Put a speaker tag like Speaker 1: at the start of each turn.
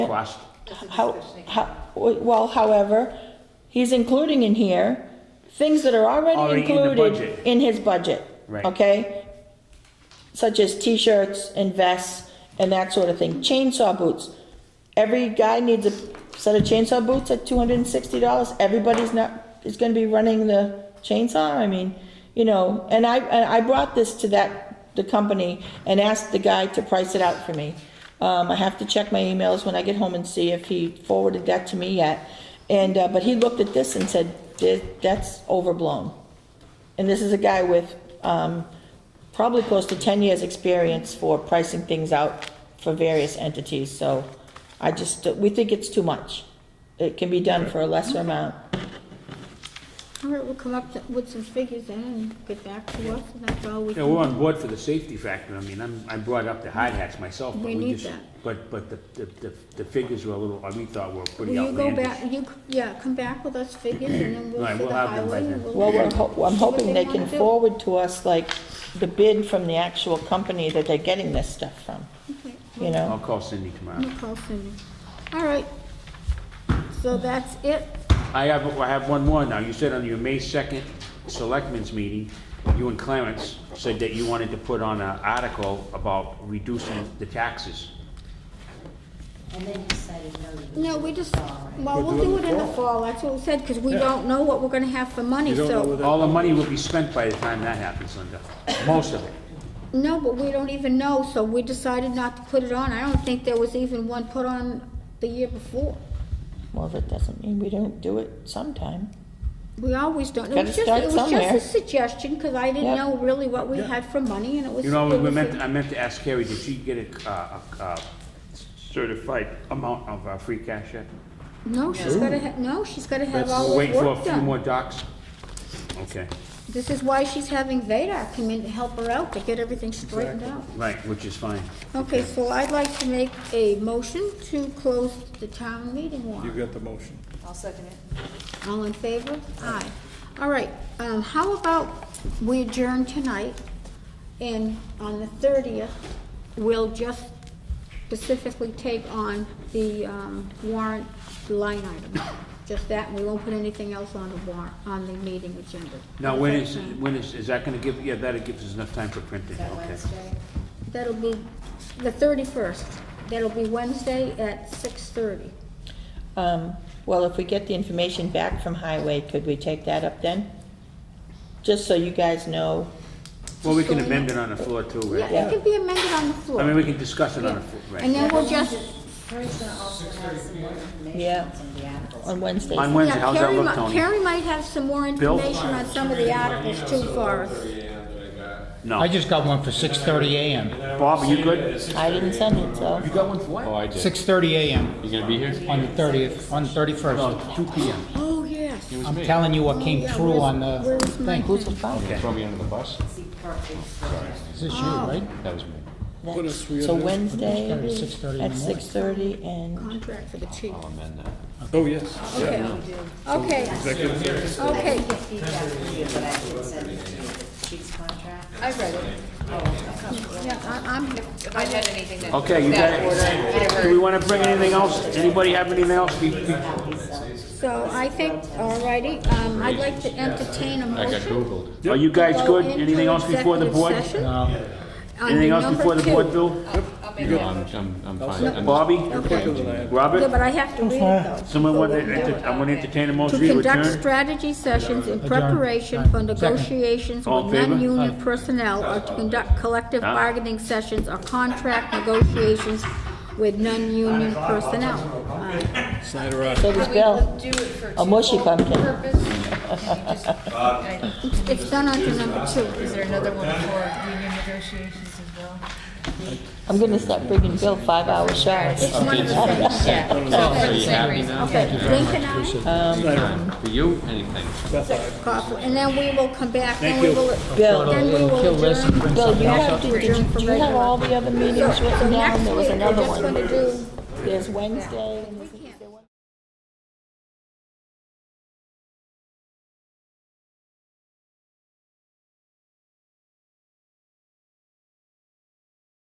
Speaker 1: Last,
Speaker 2: How, how, well, however, he's including in here things that are already
Speaker 1: Already in the
Speaker 2: included
Speaker 1: budget.
Speaker 2: in his budget.
Speaker 1: Right.
Speaker 2: Okay? Such as t-shirts and vests and that sort of thing. Chainsaw boots. Every guy needs a set of chainsaw boots at two hundred and sixty dollars. Everybody's not, is gonna be running the chainsaw, I mean, you know, and I, and I brought this to that, the company and asked the guy to price it out for me. Um, I have to check my emails when I get home and see if he forwarded that to me yet. And, uh, but he looked at this and said, "Th- that's overblown. And this is a guy with, um, probably close to ten years' experience for pricing things out for various entities, so I just, we think it's too much. It can be done for a lesser amount.
Speaker 3: All right, we'll come up with some figures then and get back to us, and that's all we
Speaker 1: you know, we're
Speaker 3: can.
Speaker 1: on board for the safety factor, I mean, I'm, I brought up the hard hats myself, but
Speaker 3: We
Speaker 1: we
Speaker 3: need
Speaker 1: just,
Speaker 3: that.
Speaker 1: but, but the, the, the- the figures were a little, we thought were
Speaker 3: Will
Speaker 1: pretty
Speaker 3: you go back,
Speaker 1: outlandish.
Speaker 3: you, yeah, come back with us figures, and then we'll
Speaker 1: Right,
Speaker 3: for
Speaker 1: we'll
Speaker 3: the
Speaker 1: have them by
Speaker 3: highway.
Speaker 1: then.
Speaker 3: we'll-
Speaker 2: Well, we're, ho- I'm
Speaker 3: See what
Speaker 2: hoping
Speaker 3: they
Speaker 2: they can
Speaker 3: wanna do.
Speaker 2: forward to us, like, the bid from the actual company that they're getting this stuff from,
Speaker 3: Okay,
Speaker 2: you know?
Speaker 1: I'll call Cindy tomorrow.
Speaker 3: we'll call Cindy. All right, so that's it.
Speaker 1: I have, I have one more now. You said on your May 2nd Selectmen's meeting, you and Clarence said that you wanted to put on an article about reducing the taxes.
Speaker 4: And then decided no. to do
Speaker 3: No,
Speaker 4: it
Speaker 3: we just,
Speaker 4: all right.
Speaker 3: well, we'll do it in the fall, that's what we said, because we don't know what we're gonna have for money, so.
Speaker 1: All the money will be spent by the time that happens, Linda. Most of it.
Speaker 3: No, but we don't even know, so we decided not to put it on. I don't think there was even one put on the year before.
Speaker 2: Well, that doesn't mean we don't do it sometime.
Speaker 3: We always don't. It
Speaker 2: Gotta
Speaker 3: was just,
Speaker 2: start
Speaker 3: it was just
Speaker 2: somewhere.
Speaker 3: a suggestion, because I didn't
Speaker 2: Yep.
Speaker 3: know really what we had for money, and it was.
Speaker 1: You know,
Speaker 3: it
Speaker 1: we
Speaker 3: was
Speaker 1: meant,
Speaker 3: a-
Speaker 1: I meant to ask Carrie, did she get a, uh, a uh, certified amount of uh, free cash yet?
Speaker 3: No, she's gotta, ha- no, she's gotta have
Speaker 1: That's-
Speaker 3: all
Speaker 1: We're
Speaker 3: this
Speaker 1: waiting for a
Speaker 3: work
Speaker 1: few more
Speaker 3: done.
Speaker 1: docs? Okay,
Speaker 3: This is why she's having Vadar come in to help her out, to get everything straightened out.
Speaker 1: right, which is fine.
Speaker 3: Okay, so I'd like to make a motion to close the town meeting warrant.
Speaker 5: got the motion.
Speaker 4: I'll second it.
Speaker 3: All in favor? Aye. All right, um, how about we adjourn tonight, and on the thirtieth, we'll just specifically take on the, um, warrant line item. Just that, and we won't put anything else on the warrant, on the meeting agenda.
Speaker 1: Now, when is, when is, is that gonna give, yeah, that gives us enough time for printing, okay.
Speaker 3: That'll be the thirty-first. That'll be Wednesday at six-thirty.
Speaker 2: Um, well, if we get the information back from Highway, could we take that up then? Just so you guys know,
Speaker 1: Well, we can
Speaker 3: Just
Speaker 1: amend it on the floor too,
Speaker 3: Yeah,
Speaker 1: right?
Speaker 3: it can be amended on the floor.
Speaker 1: I mean, we can discuss it on the
Speaker 3: Yeah.
Speaker 1: floor, right?
Speaker 3: And then we'll just,
Speaker 4: Carrie's gonna also have some more information
Speaker 2: Yeah.
Speaker 4: on some of the articles.
Speaker 2: on Wednesday.
Speaker 1: On Wednesday,
Speaker 3: Yeah,
Speaker 1: how's that
Speaker 3: Carrie
Speaker 1: look,
Speaker 3: mi-
Speaker 1: Tony?
Speaker 3: Carrie might have some more
Speaker 1: Bill?
Speaker 3: information on some of the articles too for us.
Speaker 6: I
Speaker 1: No.
Speaker 6: just got one for 6:30 a.m.
Speaker 1: Bob, are you good?
Speaker 2: I didn't send it, so.
Speaker 1: You got one for what?
Speaker 7: Oh, I did.
Speaker 6: 6:30 a.m.
Speaker 7: You gonna be here?
Speaker 6: on the 30th, on the 31st.
Speaker 1: No, two P M.
Speaker 3: Oh, yes.
Speaker 6: I'm telling you what came
Speaker 3: Yeah,
Speaker 6: through
Speaker 3: where's-
Speaker 6: on the
Speaker 3: Where's my
Speaker 6: thing.
Speaker 2: Who's
Speaker 3: thing?
Speaker 2: it from?
Speaker 7: Throw me under the bus?
Speaker 4: See, perfect.
Speaker 6: Is this you, right?
Speaker 7: That was me.
Speaker 2: So Wednesday
Speaker 6: Started at 6:30 in the
Speaker 2: at
Speaker 6: morning.
Speaker 2: six thirty and
Speaker 3: Contract for the chief.
Speaker 7: I'll amend that.
Speaker 5: Oh, yes.
Speaker 3: Okay, okay. Okay,
Speaker 4: Get feedback from you, but I did send it to you, the chief's contract. Oh, I read it.
Speaker 3: yeah, I- I'm,
Speaker 8: If I had anything that.
Speaker 1: Okay, you got
Speaker 8: that
Speaker 1: it.
Speaker 8: order,
Speaker 1: Do we wanna bring anything else? Anybody have anything else? We- we-
Speaker 3: so I think, all righty, um, I'd like to entertain a
Speaker 7: I got
Speaker 3: motion.
Speaker 7: Googled.
Speaker 1: Are you guys
Speaker 3: Go
Speaker 1: good?
Speaker 3: into
Speaker 1: Anything else before the
Speaker 3: executive
Speaker 1: board?
Speaker 3: session
Speaker 6: No.
Speaker 3: under
Speaker 1: Anything else
Speaker 3: number
Speaker 1: before the board,
Speaker 3: two.
Speaker 1: Bill?
Speaker 8: I'll make that
Speaker 7: I'm,
Speaker 8: motion.
Speaker 7: I'm, I'm fine. I'm just-
Speaker 1: Bobby?
Speaker 3: Yeah,
Speaker 1: Robert?
Speaker 3: but I have to read it though.
Speaker 1: Someone
Speaker 3: So
Speaker 1: want
Speaker 3: we'll do it.
Speaker 1: to, I'm gonna entertain a
Speaker 3: To
Speaker 1: motion to
Speaker 3: conduct
Speaker 1: adjourn?
Speaker 3: strategy sessions in
Speaker 6: Adjourn.
Speaker 3: preparation for
Speaker 6: Aye.
Speaker 3: negotiations
Speaker 1: All in
Speaker 3: with
Speaker 1: favor?
Speaker 3: non-union personnel or to conduct collective
Speaker 1: Huh?
Speaker 3: bargaining sessions or contract negotiations with non-union personnel. Aye.
Speaker 5: Snyder, aye.
Speaker 2: so does Bill.
Speaker 8: Do it for
Speaker 2: A mushy
Speaker 8: twofold
Speaker 2: pumpkin.
Speaker 8: purpose. You just- I-
Speaker 3: It's- It's done under number two.
Speaker 8: Is there another one for union negotiations as well?
Speaker 2: I'm gonna start bringing Bill five hours shy.
Speaker 3: It's one of the things.
Speaker 8: Yeah, so Oh, for the same reason.
Speaker 3: Okay, Lincoln, aye,
Speaker 7: For you, anything.
Speaker 3: Coughlin, and then we will come back and
Speaker 1: Thank
Speaker 3: we
Speaker 1: you.
Speaker 3: will.
Speaker 2: Bill.
Speaker 3: Then we
Speaker 6: Kill
Speaker 3: will
Speaker 6: this and
Speaker 3: adjourn.
Speaker 6: bring
Speaker 2: Bill, you
Speaker 6: something else
Speaker 2: have,
Speaker 6: up.
Speaker 2: to- did- do you have all the other meetings
Speaker 3: So
Speaker 2: written down?
Speaker 3: next
Speaker 2: There was
Speaker 3: week, we're
Speaker 2: another
Speaker 3: just gonna
Speaker 2: one.
Speaker 3: do
Speaker 2: There's Wednesday and there's.